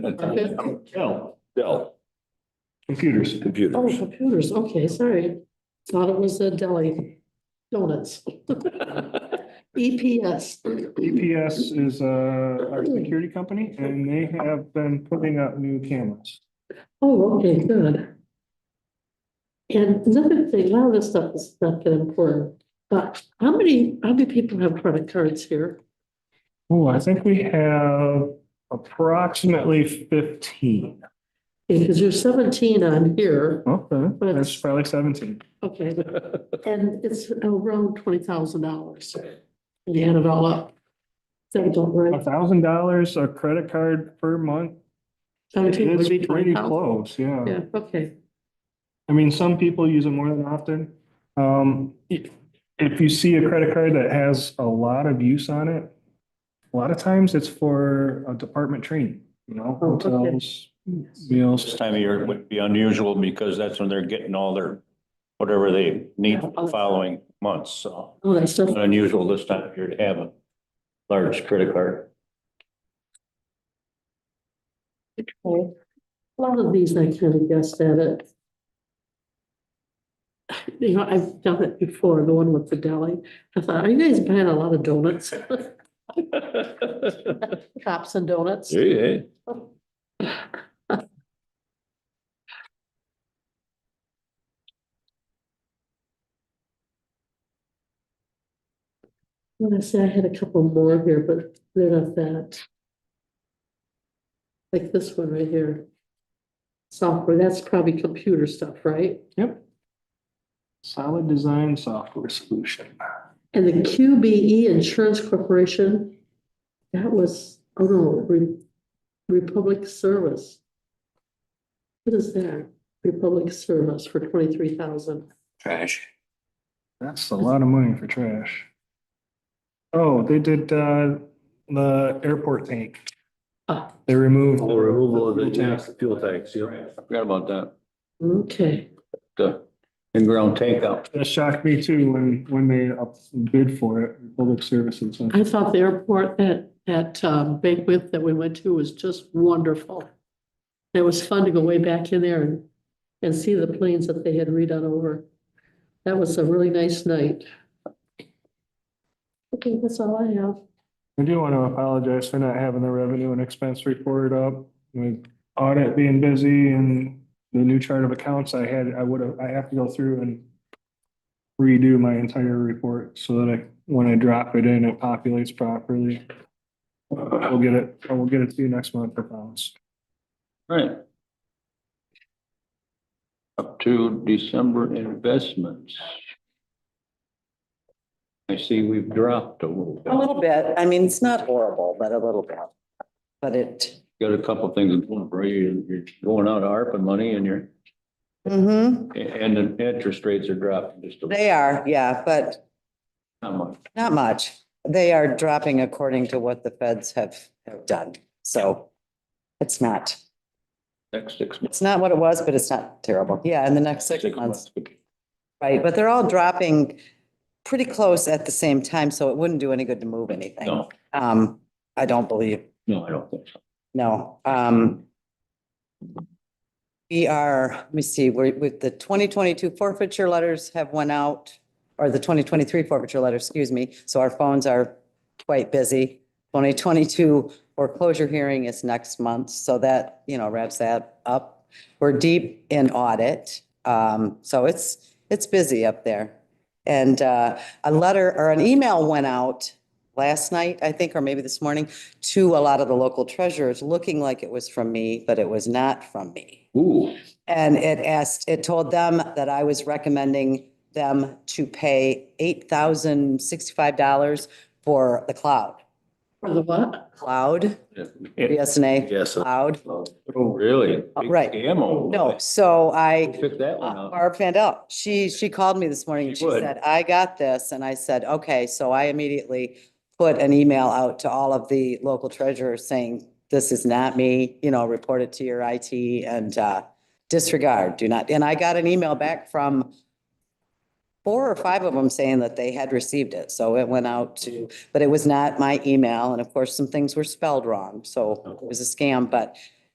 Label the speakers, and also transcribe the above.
Speaker 1: Dell,
Speaker 2: Dell,
Speaker 1: computers.
Speaker 2: computer.
Speaker 3: Oh, computers, okay, sorry. Thought it was a deli donuts. E EPS,
Speaker 1: EPS is uh, our security company and they have been putting up new cameras.
Speaker 3: oh, okay, good. And another thing, a lot of this stuff is not that important, but how many, how many people have credit cards here?
Speaker 1: Oh, I think we have approximately fifteen.
Speaker 3: Because you're seventeen on here,
Speaker 1: Okay,
Speaker 3: But-
Speaker 1: that's probably seventeen.
Speaker 3: okay, and it's around twenty thousand dollars. You add it all up. That don't
Speaker 1: A
Speaker 3: worry.
Speaker 1: thousand dollars a credit card per month.
Speaker 3: Seventeen would be
Speaker 1: It's pretty
Speaker 3: 20,000.
Speaker 1: close, yeah.
Speaker 3: Yeah, okay,
Speaker 1: I mean, some people use it more than often. Um, i- if you see a credit card that has a lot of use on it, a lot of times it's for a department training, you know,
Speaker 3: Oh, okay.
Speaker 1: hotels, meals.
Speaker 4: This time of year would be unusual because that's when they're getting all their, whatever they need for the following months, so.
Speaker 3: all that stuff.
Speaker 4: Unusual this time of year to have a large credit card.
Speaker 3: Okay. A lot of these I kind of guessed at it. You know, I've done it before, the one with the deli. I thought, are you guys buying a lot of donuts? Cops and donuts.
Speaker 2: Hey,
Speaker 3: When I say I had a couple more here, but they're not that. Like this one right here. Software, that's probably computer stuff, right?
Speaker 1: Yep. Solid design software solution.
Speaker 3: And the QBE Insurance Corporation, that was, oh no, Re- Republic Service. What is that? Republic Service for twenty-three thousand.
Speaker 2: Trash.
Speaker 1: That's a lot of money for trash. Oh, they did, uh, the airport tank.
Speaker 3: Ah.
Speaker 1: They removed.
Speaker 2: The removal of the tax, fuel tax, yeah. Forgot about that.
Speaker 3: Okay,
Speaker 2: The in-ground takeout.
Speaker 1: That shocked me too when, when they up- bid for it, public services.
Speaker 3: I thought the airport that, that um, banquet that we went to was just wonderful. It was fun to go way back in there and, and see the planes that they had redone over. That was a really nice night. Okay, that's all I have.
Speaker 1: I do want to apologize for not having the revenue and expense report up with audit being busy and the new chart of accounts I had, I would have, I have to go through and redo my entire report so that I, when I drop it in, it populates properly. We'll get it, I will get it to you next month, I promise.
Speaker 2: Right. Up to December investments. I see we've dropped a little
Speaker 5: A
Speaker 2: bit.
Speaker 5: little bit. I mean, it's not horrible, but a little bit. But it,
Speaker 2: Got a couple of things going for you. You're going out of ARPA money and you're, Mm-hmm.
Speaker 5: hmm
Speaker 2: and the interest rates are dropping just a little.
Speaker 5: they are, yeah, but
Speaker 2: Not much.
Speaker 5: not much. They are dropping according to what the feds have, have done. So it's not,
Speaker 2: Next six months.
Speaker 5: it's not what it was, but it's not terrible. Yeah, in the next six months, right? But they're all dropping pretty close at the same time, so it wouldn't do any good to move anything.
Speaker 2: No,
Speaker 5: Um, I don't believe,
Speaker 2: no, I don't think so.
Speaker 5: no, um. We are, let me see, we're with the twenty twenty-two forfeiture letters have went out, or the twenty twenty-three forfeiture letter, excuse me, so our phones are quite busy. Twenty twenty-two foreclosure hearing is next month, so that, you know, wraps that up. We're deep in audit, um, so it's, it's busy up there. And, uh, a letter or an email went out last night, I think, or maybe this morning, to a lot of the local treasurers, looking like it was from me, but it was not from me.
Speaker 2: Ooh,
Speaker 5: And it asked, it told them that I was recommending them to pay eight thousand sixty-five dollars for the cloud.
Speaker 3: For the what?
Speaker 5: Cloud, BSNA,
Speaker 2: yes.
Speaker 5: cloud.
Speaker 2: Oh, really?
Speaker 5: Oh, right.
Speaker 2: Ammo.
Speaker 5: No, so I,
Speaker 2: Pick that one
Speaker 5: Uh,
Speaker 2: up.
Speaker 5: Barb Vandell, she, she called me this morning and
Speaker 2: She
Speaker 5: she
Speaker 2: would.
Speaker 5: said, I got this. And I said, okay, so I immediately put an email out to all of the local treasurers saying, this is not me, you know, report it to your IT and uh, disregard, do not. And I got an email back from four or five of them saying that they had received it. So it went out to, but it was not my email. And of course, some things were spelled wrong. So it was a scam, but